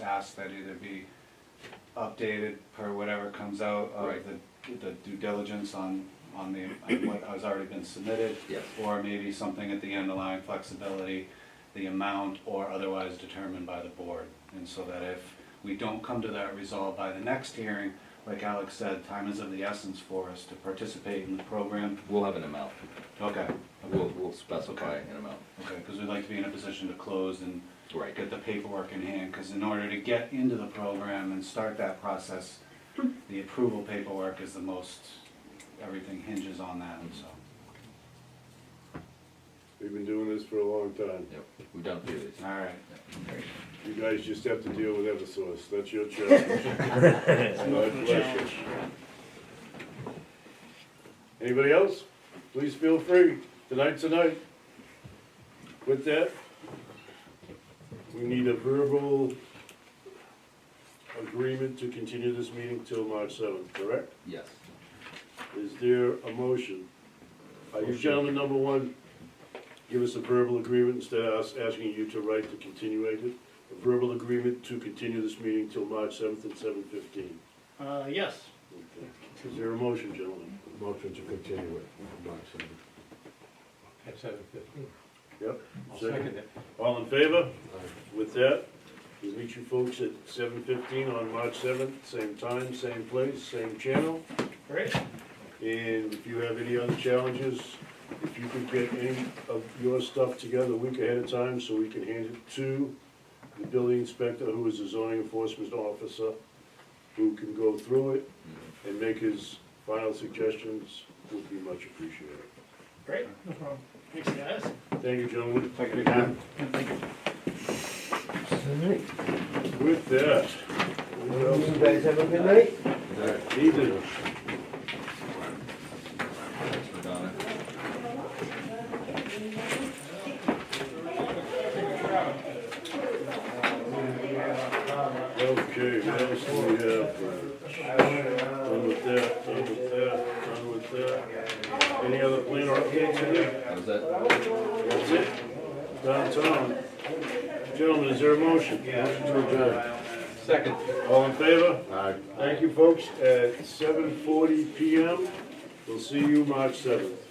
past that either be updated per whatever comes out of Right. the, the due diligence on, on the, on what has already been submitted. Yes. Or maybe something at the end allowing flexibility, the amount or otherwise determined by the board. And so that if we don't come to that resolve by the next hearing, like Alex said, time is of the essence for us to participate in the program. We'll have an amount, Okay, we'll, we'll specify an amount, okay, because we'd like to be in a position to close and right, get the paperwork in hand, because in order to get into the program and start that process, the approval paperwork is the most, everything hinges on that, and so. We've been doing this for a long time. yep, we've done three of these. All right, You guys just have to deal with Eversource, that's your challenge. My pleasure. Anybody else? Please feel free, tonight's the night. With that, we need a verbal agreement to continue this meeting till March seventh, correct? Yes, Is there a motion? Are you gentlemen, number one, give us a verbal agreement instead of us asking you to write the continuation? A verbal agreement to continue this meeting till March seventh at seven fifteen. Uh, yes. Is there a motion, gentlemen? Motion to continue it, March seventh. At seven fifteen. Yep. I'll second it. All in favor? Aye. With that, we'll meet you folks at seven fifteen on March seventh, same time, same place, same channel. Great. And if you have any other challenges, if you could get any of your stuff together a week ahead of time so we can hand it to the building inspector, who is the zoning enforcement officer, who can go through it and make his final suggestions, would be much appreciated. Great, no problem. Thanks, guys. Thank you, gentlemen. Thank you, Dan. With that. what else? You guys have a good night? Ethan, Donna, okay, what else do we have? Done with that, done with that, done with that. Any other plan or updates in there? that was it? That's it. Downtown. Gentlemen, is there a motion? Motion to adjourn. Second. All in favor? Aye. Thank you, folks, at seven forty PM. We'll see you March seventh.